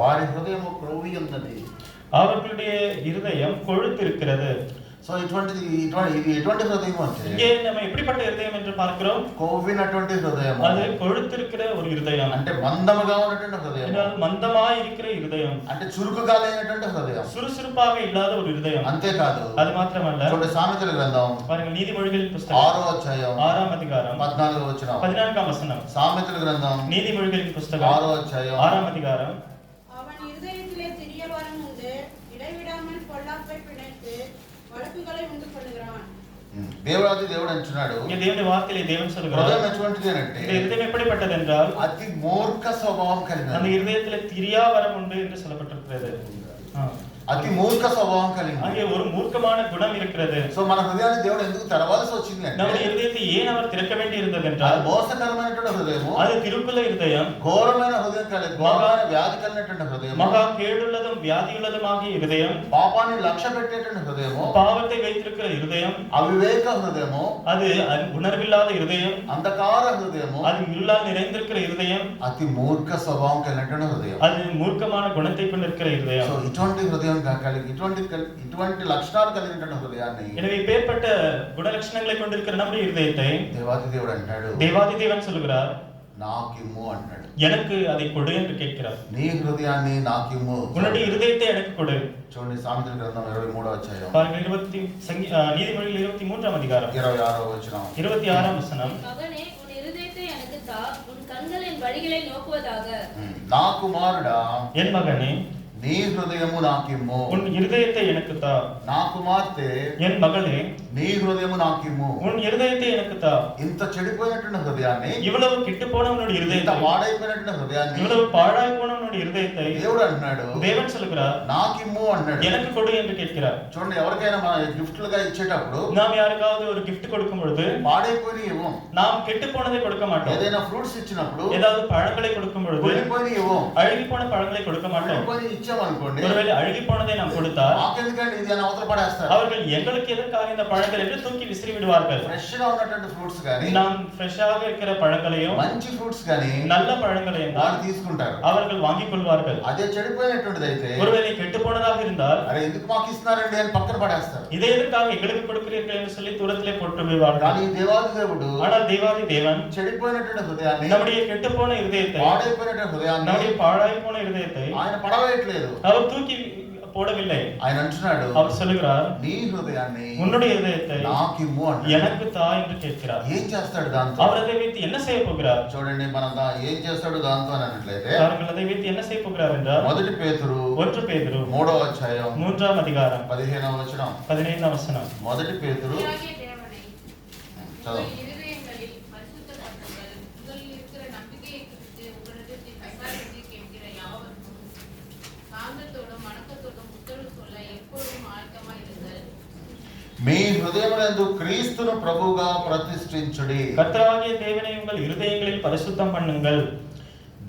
వారి హృదయం క్రొవ్వి ఉన్నది அவர்களுடைய இருதயம் கொழுத்து இருக்கிறது సో ఇటువంటిది ఇటువంటి ఇది ఎటువంటి హృదయం అంటే இங்கே நம்ம எப்படிப்பட்ட இருதயம் என்று பார்க்கிறோம் కొవ్వినటువంటి హృదయం அது కొழுத்திருக்கிற ஒரு இருதயம் అంటే మందముగా ఉన్నటువంటి హృదయం என்றால் மந்தமாய் இருக்கிற இருதயம் అంటే చురుకుగా లేనటువంటి హృదయం சுறுசுறுப்பாக இல்லாத ஒரு இருதயம் అంతేకాదు அது மாத்திரமல்ல చూడండి సామెతల గ్రంథం பாருங்கள் நீதிமொழிகளின் புஸ்தகம் ఆరో అధ్యాయం ஆறாம் அதிகாரம் పద్నాలుగు వచ్చిన பதினான்காம் வசனம் సామెతల గ్రంథం நீதிமொழிகளின் புஸ்தகம் ஆறோ அத்தியாயம். ஆறாம் அதிகாரம் அவன் இருதயத்திலே சிறிய வரம் உண்டு இடைவிடாமல் பொல்லாப்பை பிணைத்து வழக்குகளை உண்டு பண்ணுகிறான் ఉమ్. దేవుడాది దేవుడు అంటున్నాడు இங்கே தேவனுடைய வார்த்தையிலே தேவன் హృదయం சொல்கிறார் ఎటువంటిది అంటే இந்த இருதயம் எப்படிப்பட்டது என்றால் అతి మూర్ఖ స్వభావం அந்த కలిగినది இருதயத்திலே திரியா வரம் உண்டு என்று சொல்லப்பட்டிருக்கிறது ஆ. అతి మూర్ఖ స్వభావం కలిగినది அங்கே ஒரு மூர்க்கமான குணம் இருக்கிறது సో మన హృదయాన్ని దేవుడు ఎందుకు తెరవాల్సి వచ్చింది అంటే நம்முடைய இருதயத்தை ஏன் அவர் திறக்க வேண்டி இருந்தது అది என்றால் మోసకరమైనటువంటి హృదయము அது తిరుకుల இருதయం ఘోరమైన హృదయం కలిగి ఘోరమైన వ్యాధి కలిగినటువంటి హృదయము மகா கேடுள்ளதும் வியாதியுள்ளதுமாகிய இருதయం పాపాన్ని లక్ష్య పెట్టేటువంటి హృదయము பாவத்தை வைத்திருக்கிற இருதயம் అవివేక హృదయము அது அது உணர்வில்லாத இருதயம் అంధకార హృదయము அது இருளால் நிறைந்திருக்கிற இருதయం అతి మూర్ఖ స్వభావం కలిగినటువంటి హృదయం அது மூர்க்கமான குணத்தை கொண்டிருக்கிற సో இருதయం ఇటువంటి హృదయం కా- కలిగి ఇటువంటి కల్- ఇటువంటి లక్షణాలు కలిగినటువంటి హృదయాన్ని எனவே பேர்பட்ட குணலட்சணங்களை கொண்டிருக்கிற நம்முடைய இருதயத்தை దేవాది దేవుడు అంటాడు தேவாதி தேவன் சொல்கிறார் నాకిమ్ము అంటాడు எனக்கு அதை கொடு என்று கேட்கிறார் నీ హృదయాన్ని నాకిమ్ము உன்னுடைய இருதயத்தை எனக்கு கொடு చూడండి సామెతల గ్రంథం ఇరవై మూడో అధ్యాయం பாருங்கள் இருபத்தி சங்கி- ஆஹ், நீதிமொழிகள் இருபத்தி மூன்றாம் அதிகாரம் ఇరవై ఆరో వచనం இருபத்தி ஆறாம் வசனம் மகனே உன் இருதயத்தை எனக்கு தா உன் கண்களின் வழிகளை நோக்குவதாக ఉమ్. నా కుమారుడా என் மகனே నీ హృదయము నాకిమ్ము உன் இருதயத்தை எனக்கு தா నా కుమార్తె என் మகளே నీ హృదయము నాకిమ్ము உன் இருதயத்தை எனக்கு தா ఇంత చెడిపోయినటువంటి హృదయాన్ని இவ்வளவு கிட்டு போனவனுடைய ఇంత இருதயத்தை వాడైపోయినటువంటి హృదయాన్ని இவ்வளவு பாழாய் போனவனுடைய இருதயத்தை దేవుడు అంటున్నాడు தேவன் சொல்கிறார் నాకిమ్ము అన్నాడు எனக்கு కొடு என்று கேட்கிறார் చూడండి ఎవరికైనా మన గిఫ్ట్లుగా ఇచ్చేటప్పుడు நாம் యారికాவது ஒரு gift கொடுக்கும் பொழுது పాడైపోయి ఇవ్వం நாம் கெட்டு போனதை கொடுக்க மாட்டோம் ఏదైనా ఫ్రూట్స్ ఇచ్చినప్పుడు ஏதாவது பழங்களை கொடுக்கும் பொழுது కుళ్ళిపోయి ఇవ్వం அழுகி போன பழங்களை கொடுக்க மாட்டோம் కుళ్ళిపోయి ఇచ్చామనుకోండి ஒருவேளై అழுகி పోனதை நாம் கொடுத்தால் మాకెందుకండి ఇది అని అవతల పడేస్తారు அவர்கள் எங்களுக்கு எதற்காக இந்த பழங்கள் என்று தூக்கி விசிறி விடுவார்கள் ఫ్రెష్ గా ఉన్నటువంటి ఫ్రూట్స్ కానీ நாம் ఫ్రెஷ்ஷாக இருக்கிற பழங்களையும் మంచి ఫ్రూట్స్ కానీ நல்ல பழங்களையும் தான் వాళ్ళు తీసుకుంటారు அவர்கள் வாங்கிக் கொள்வார்கள் అదే చెడిపోయినటువంటిది అయితే ஒருவேளை கெட்டு போனதாக இருந்தால் అరే ఎందుకు మాకు ఇస్తున్నారండి అని పక్కన పడేస్తారు இதை எதற்காக எங்களுக்கு கொடுக்கிறீர்கள் என்று சொல்லி தூரத்திலே போட்டு விடுவார்கள் కానీ ఈ దేవాది దేవుడు ஆனால் தேவாதி தேவன் చెడిపోయినటువంటి హృదయాన్ని நம்முடைய కెట్టుపోన హృదయத்தை పాడైపోయినటువంటి హృదయాన్ని நம்முடைய பாழாய் போன ஹிருதயத்தை ఆయన పడవేయట్లేదు அவர் தூக்கி போடவில்லை ఆయన అంటున్నాడు அவர் சொல்லுகிறார் నీ హృదయాన్ని உன்னுடைய இதயத்தை నాకిమ్ము అంటాడు எனக்கு தா என்று கேட்கிறார் ఏం చేస్తాడు దాంతో அவர் அதை வைத்து என்ன செய்ய போகிறார் చూడండి మనం దా- ఏం చేస్తాడు దాంతో అని అన్నట్లయితే அவர்கள் அதை வைத்து என்ன செய்ய போகிறார் என்றால் మొదటి పేతురు ஒன்று பேதுரு మూడో అధ్యాయం மூன்றாம் அதிகாரம் పదిహేనవ వచనం பதினைந்தாம் வசனம் మొదటి పేతురు பிதாகிய தேவனை చదువు உங்கள் இருதயங்களில் பரிசுத்தப்படுத்துங்கள். உங்களில் இருக்கிற நம்பிக்கையை குறித்து உங்களிடத்தில் விசாரித்து கேட்கிற யாவருக்கும் சாந்தத்தோடும் வணக்கத்தோடும் உத்தரவு சொல்ல எப்பொழுதும் ஆயத்தமாய் இருங்கள். మీ హృదయములందు క్రీస్తును ప్రభువుగా ప్రతిష్ఠించుడి கர்த்தராகிய தேவனை உங்கள் இருதயங்களில் பரிசுத்தம் பண்ணுங்கள்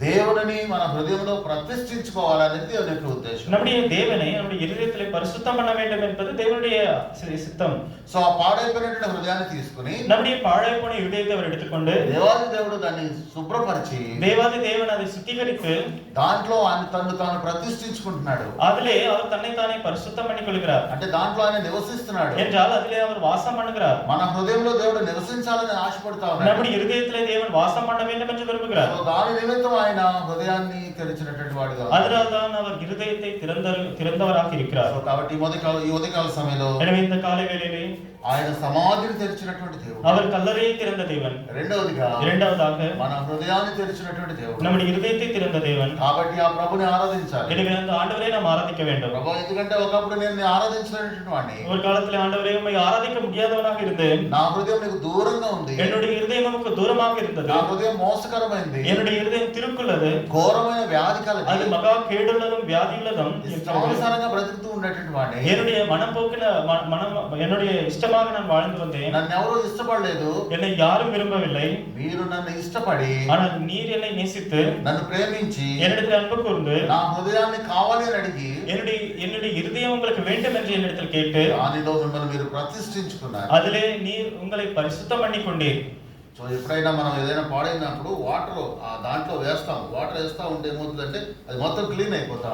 దేవుడిని మన హృదయంలో ప్రతిష్ఠించుకోవాలనేది దేవుని యొక్క ఉద్దేశం நம்முடைய தேவனை நம்முடைய இருதயத்திலே பரிசுத்தம் பண்ண வேண்டும் என்பது தேவனுடைய சி- சித்தம் సో ఆ పాడైపోయినటువంటి హృదయాన్ని తీసుకుని நம்முடைய பாழாய் போன இருதயத்தை அவர் எடுத்துக்கொண்டு దేవాది దేవుడు దాన్ని శుభ్రపరిచి தேவாதி தேவன் அதை சுத்திகரித்து దాంట్లో ఆయన తను తాను ప్రతిష్ఠించుకుంటున్నాడు அதிலே அவர் தன்னைத்தானே பரிசுத்தம் பண்ணிக் கொள்கிறார் అంటే దాంట్లో ఆయన నివసిస్తున్నాడు என்றால் அதிலே அவர் வாசம் பண்ணுகிறார் మన హృదయంలో దేవుడు నివసించాలని ఆశపడతా ఉన్నాడు நம்முடைய இருதயத்திலே தேவன் வாசம் பண்ண வேண்டும் என்று விரும்புகிறார் సో దాని నిమిత్తం ఆయన హృదయాన్ని తెరిచినటువంటి వాడుగా ఉన్నాడు. அதனால்தான் அவர் இருதயத்தை திறந்த திறந்தவராக இருக்கிறார் సో కాబట్టి ఈ ఉదయకాల ఈ ఉదయకాల సమయంలో எனவே இந்த காலை வேளையிலே ఆయన సమాధిని తెరిచినటువంటి దేవుడు அவர் கல்லறையை திறந்த தேவன் రెండవదిగా இரண்டாவதாக మన హృదయాన్ని తెరిచినటువంటి దేవుడు நம்முடைய இருதயத்தை திறந்த தேவன் కాబట్టి ఆ ప్రభుని ఆరాధించాలి எனவே அந்த ఆండవరే நாம் ఆరాధిக்க வேண்டும் ప్రభు ఎందుకంటే ఒకప్పుడు నేను నిన్ను ఆరాధించినటువంటి వాడిని ஒரு காலத்துல ஆண்டவரே உண்மை ஆராதிக்க முடியாதவனாக இருந்தேன் నా హృదయం నీకు దూరంగా ఉంది என்னுடைய இருதயம் நமக்கு தூரமாக இருந்தது నా హృదయం మోసకరమైంది என்னுடைய இருதயம் திருக்குள்ளது ఘోరమైన వ్యాధి அது కలిగి மகா கேடுள்ளதும் வியாதியுள்ளதும் இருக்கிறது. ఇష్టానుసారంగా బ్రతుకుతూ ఉండేటువంటి వాడిని என்னுடைய மனப்போக்கில ம- மனம் என்னுடைய இஷ்டமாக நான் வாழ்ந்து வந்தேன் నన్ను ఎవరు ఇష్టపడలేదు என்னை யாரும் விரும்பவில்லை మీరు నన్ను ఇష్టపడి ஆனால் நீர் என்னை நேசித்து నన్ను ప్రేమించి என்னிடத்தில் அன்பு கூர்ந்து నా హృదయాన్ని కావాలి అని అడిగి என்னுடைய என்னுடைய இருதயம் உங்களுக்கு வேண்டும் என்று என்னிடத்தில் கேட்டு దానిలో మిమ్మల్ని మీరు ప్రతిష్ఠించుకున్నారు அதிலே நீர் உங்களை பரிசுத்தம் பண்ணி கொண்டீர் సో ఎప్పుడైనా మనం ఏదైనా పాడైనప్పుడు వాటర్ ఆ దాంట్లో వేస్తాం వాటర్ వేస్తా ఉంటే ఏమవుతుందంటే అది మొత్తం క్లీన్ అయిపోతా